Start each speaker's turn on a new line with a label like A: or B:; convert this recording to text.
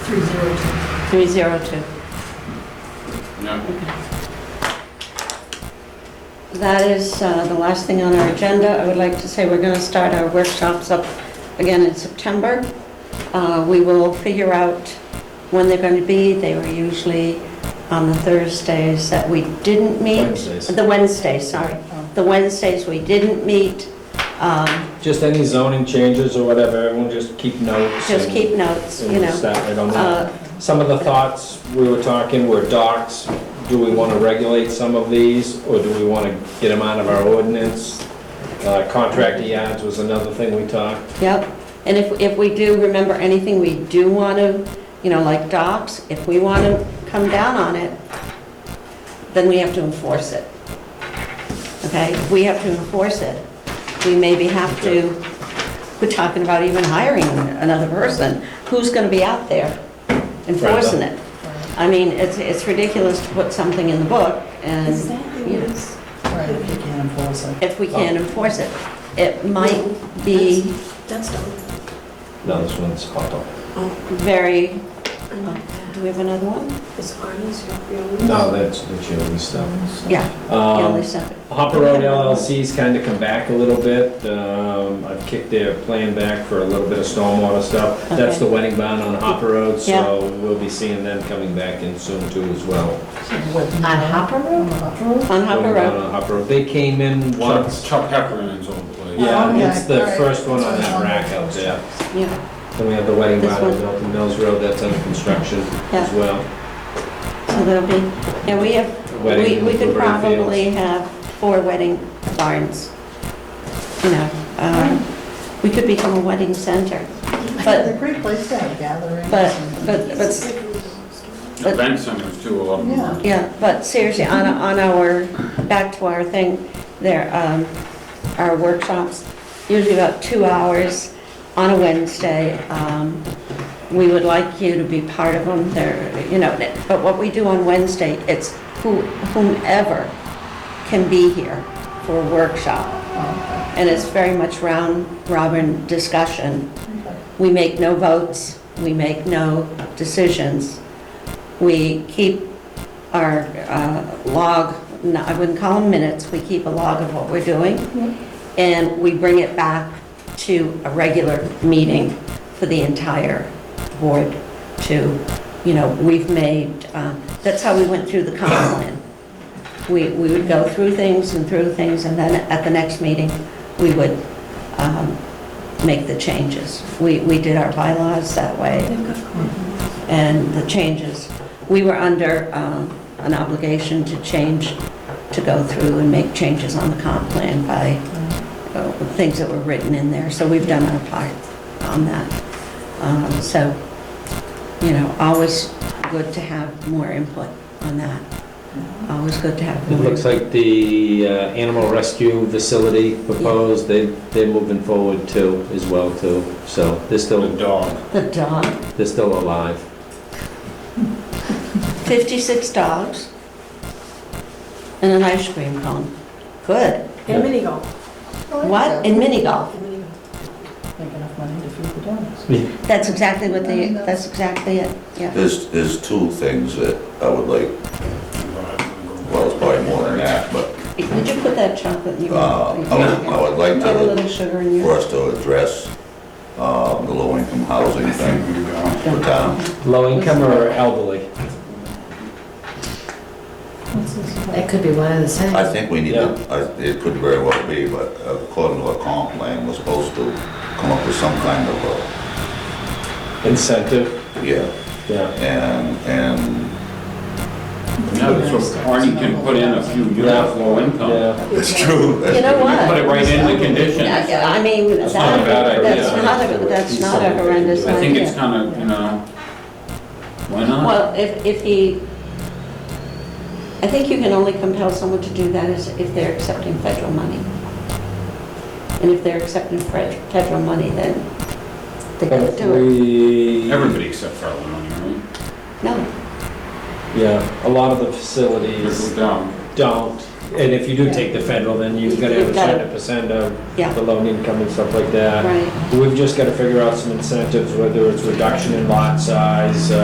A: 302.
B: 302.
C: No.
B: That is uh, the last thing on our agenda. I would like to say we're going to start our workshops up again in September. Uh, We will figure out when they're going to be. They were usually on the Thursdays that we didn't meet.
D: Wednesdays. Oh.
B: The Wednesdays, sorry. The Wednesdays we didn't meet. Um,
D: Just any zoning changes or whatever, everyone just keep notes.
B: Just
D: and-
B: keep notes,
D: and
B: you
D: just
B: know.
D: that, I don't know.
B: Uh,
D: Some of the thoughts we were talking were docks. Do we want to regulate some of these, or do we want to get them out of our ordinance? Uh, Contractor yards was another thing we talked.
B: Yep, and if, if we do remember anything we do want to, you know, like docs, if we want to come down on it, then we have to enforce it. Okay, If we have to enforce it. We maybe have to, we're talking about even hiring another person. Who's going to be out there enforcing it? I mean, it's, it's ridiculous to put something in the book
E: Is
B: and
E: that
B: you know.
E: yours?
A: Right, if you can enforce it.
B: if we can't enforce it, it might be
E: That's done.
D: No, this one's hot dog.
B: very Do we have another one?
E: Is Arnie's your, your?
D: No, that's the chili stuff.
B: Yeah, yeah,
D: Um,
B: Lisa.
D: Hopper Road LLC's kind of come back a little bit. Um, I've kicked their plan back for a little bit of stormwater stuff. That's
B: Okay.
D: the wedding bond on Hopper Road,
B: Yeah.
D: so we'll be seeing them coming back in soon too as well.
A: On
B: Hopper
A: Road?
B: On Hopper
D: Wedding bond
B: Road.
D: on Hopper Road. They came in
C: Chuck
D: once.
C: Chuck Heffernan is on the plate.
B: Oh,
D: Yeah,
A: Okay,
D: it's the
A: alright.
D: first one on that rack out there.
B: Yeah,
D: Then we have the wedding
B: This
D: bond on
B: one.
D: Milton Mills Road, that's under construction
B: Yeah.
D: as well.
B: so there'll be, yeah, we have, we,
D: Wedding
B: we
D: in
B: could
D: Blueberry Fields.
B: probably have four wedding barns. You know, um, we could become a wedding center,
A: It's
B: but,
A: a great place to have gatherings.
B: but,
A: and-
B: but, but, But-
C: Event centers too, a lot of them are.
B: yeah, but seriously, on, on our, back to our thing, there, um, our workshops, usually about two hours on a Wednesday. Um, We would like you to be part of them, they're, you know, but what we do on Wednesday, it's who- whomever can be here for a workshop.
A: Oh,
B: And it's very much round robin discussion.
A: okay.
B: We make no votes, we make no decisions. We keep our uh, log, no, I wouldn't call them minutes, we keep a log of what we're doing, and we bring it back to a regular meeting for the entire board to, you know, we've made, um, that's how we went through the comp plan. We we would go through things and through things, and then at the next meeting, we would um, make the changes. We, we did our bylaws that way
E: They've got corn.
B: and the changes. We were under um, an obligation to change, to go through and make changes on the comp plan by uh, things that were written in there. So we've done our part on that. Um, So, you know, always good to have more input on that. Always good to have
D: It
B: more.
D: looks like the uh, animal rescue facility proposed, they, they're moving forward too, as well too. So they're
C: The
D: still,
C: dog.
B: The dog,
D: they're still alive.
B: 56 dogs and an ice cream cone. Good.
E: And mini golf.
B: What? In mini golf.
E: And mini golf.
A: Make enough money to feed the dogs.
B: That's exactly what they, that's exactly it, yeah.
F: There's, there's two things that I would like, well, it's probably more than that, but
B: Did you put that chocolate in your?
F: uh, I would, I would like
B: Put a
F: to,
B: little sugar in
F: for
B: your.
F: us to address um, the low-income housing thing for town.
D: Low income or elderly?
A: What's this about?
G: That could be one of the things.
F: I think we need to, I- it could very well be, but according to our comp plan, we're supposed to come up with some kind of a,
D: Incentive?
F: yeah,
D: Yeah.
F: and, and
C: Yeah, that's what Arnie can put in a few units, low income.
D: Yeah.
F: it's true.
B: You know
C: You
B: what?
C: Put it right in the condition.
B: Yeah,
C: I
B: yeah, I mean, that,
C: That's not a bad idea.
B: that's not, a that's not a horrendous idea.
C: think it's kind of, you know, why not?
B: Well, if, if he, I think you can only compel someone to do that is if they're accepting federal money. And if they're accepting fed- federal money, then they could do it.
D: We,
C: Everybody except Farland, right?
B: No,
D: yeah, a lot of the
C: Little
D: facilities
C: dog.
D: don't. And if you do take the federal, then you've got to have
B: You've
D: a
B: gotta-
D: certain percent of
B: Yeah.
D: the loan income and stuff like that.
B: right.
D: We've just got to figure out some incentives, whether it's reduction in lot size, uh,